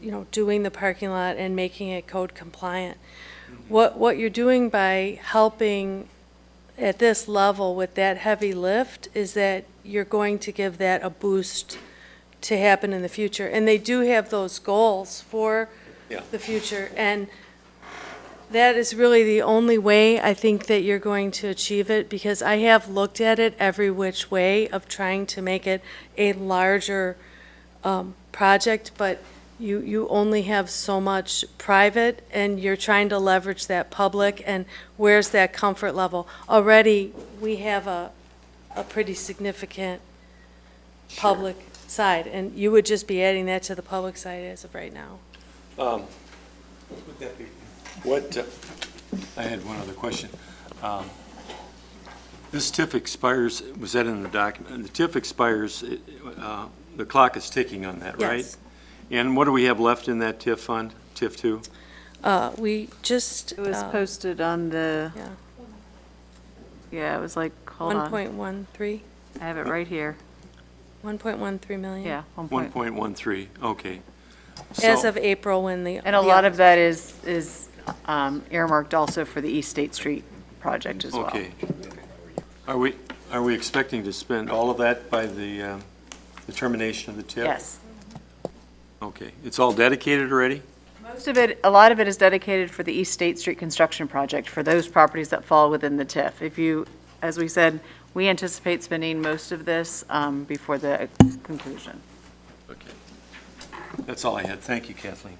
you know, doing the parking lot and making it code compliant. What, what you're doing by helping at this level with that heavy lift is that you're going to give that a boost to happen in the future. And they do have those goals for Yeah. the future. And that is really the only way I think that you're going to achieve it, because I have looked at it every which way of trying to make it a larger um, project, but you, you only have so much private, and you're trying to leverage that public, and where's that comfort level? Already, we have a, a pretty significant public side, and you would just be adding that to the public side as of right now. Would that be? What, uh, I had one other question. Um, This TIF expires, was that in the document? The TIF expires, it, uh, the clock is ticking on that, right? Yes. And what do we have left in that TIF fund, TIF two? Uh, we just, It was uh, posted on the, yeah, yeah, it was like, hold one on, point one three, I have it right here, one point one three million. yeah, one One point. point one three, okay. As So- of April, when the. And the a lot of that is, is um, earmarked also for the East State Street project as well. Okay. Are we, are we expecting to spend all of that by the, um, the termination of the TIF? Yes. Okay, it's all dedicated already? Most of it, a lot of it is dedicated for the East State Street construction project, for those properties that fall within the TIF. If you, as we said, we anticipate spending most of this um, before the conclusion. Okay. That's all I had. Thank you, Kathleen.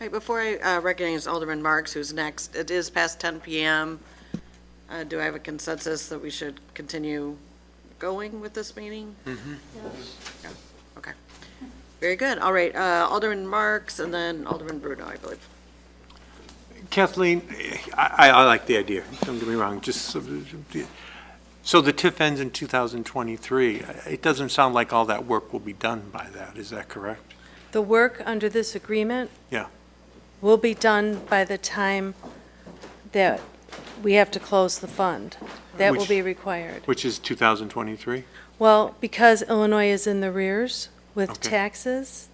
Right, before I uh, recognize Alderman Marks, who's next, it is past 10 PM. Uh, Do I have a consensus that we should continue going with this meeting? Yeah, Okay. Very good. All right, uh, Alderman Marks and then Alderman Bruno, I believe. Kathleen, I, I- I like the idea, don't get me wrong, just, so- so the TIF ends in 2023. It doesn't sound like all that work will be done by that, is that correct? The work under this agreement. Yeah. Will be done by the time that we have to close the fund. That will Which- be required. Which is 2023? Well, because Illinois is in the rears with Okay. taxes,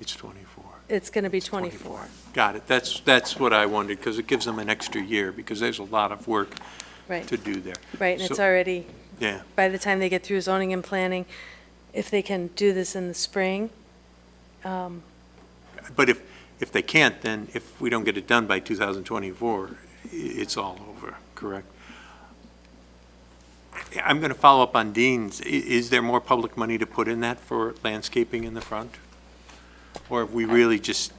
It's 24. it's going to be 24. Got it, that's, that's what I wondered, because it gives them an extra year, because there's a lot of work Right, to do there. right, and it's So- already, Yeah, by the time they get through zoning and planning, if they can do this in the spring, um, but if, if they can't, then if we don't get it done by 2024, i- it's all over, correct? I- I'm going to follow up on Dean's. I- Is there more public money to put in that for landscaping in the front? Or are we really just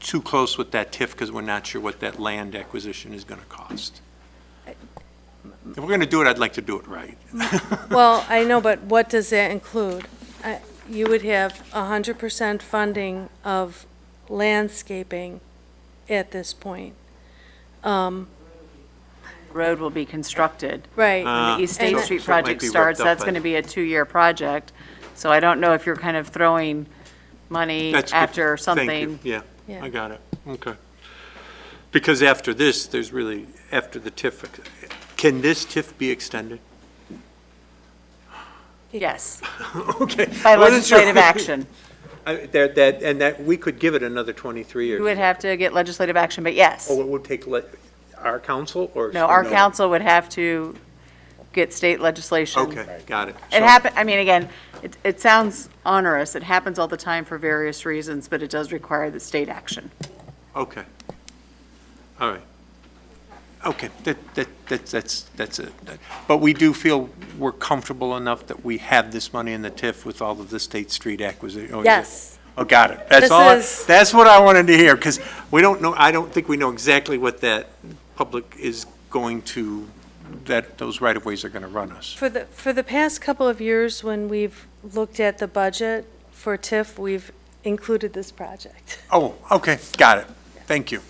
too close with that TIF because we're not sure what that land acquisition is going to cost? If we're going to do it, I'd like to do it right. Well, I know, but what does that include? I- You would have 100% funding of landscaping at this point. Road will be constructed. Right. Uh, When the East And State that- Street So it might project be ripped starts, up that's by going to then. be a two-year project. So I don't know if you're kind of throwing money That's good. after Thank you. something. Yeah, Yeah. I got it. Okay. Because after this, there's really, after the TIF, can this TIF be extended? Yes, Okay. by Wasn't sure. legislative action. I- That, that, and that, we could give it another 23 You years. would have to get legislative action, but yes. Or it would take le- our council or? No, our council would have to get state legislation. Okay, got it. It So- happen, I mean, again, it, it sounds onerous. It happens all the time for various reasons, but it does require the state action. Okay. All right. Okay, that, that, that's, that's, that's it. That- But we do feel we're comfortable enough that we have this money in the TIF with all of the State Street acquisition. Yes. Oh, got it. This That's all, I- is- that's what I wanted to hear, because we don't know, I don't think we know exactly what that public is going to, that those right-of-ways are going to run us. For the, for the past couple of years, when we've looked at the budget for TIF, we've included this project. Oh, okay, got it. Thank you.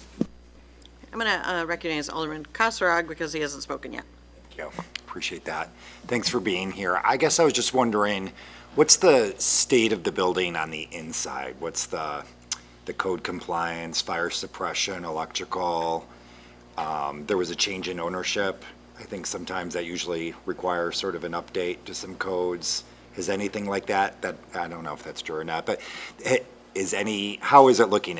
I'm going to recognize Alderman Kasserag because he hasn't spoken yet. Thank you. Appreciate that. Thanks for being here. I guess I was just wondering, what's the state of the building on the inside? What's the, the code compliance, fire suppression, electrical? Um, there was a change in ownership. I think sometimes that usually requires sort of an update to some codes. Is anything like that? That, I don't know if that's true or not, but eh, is any, how is it looking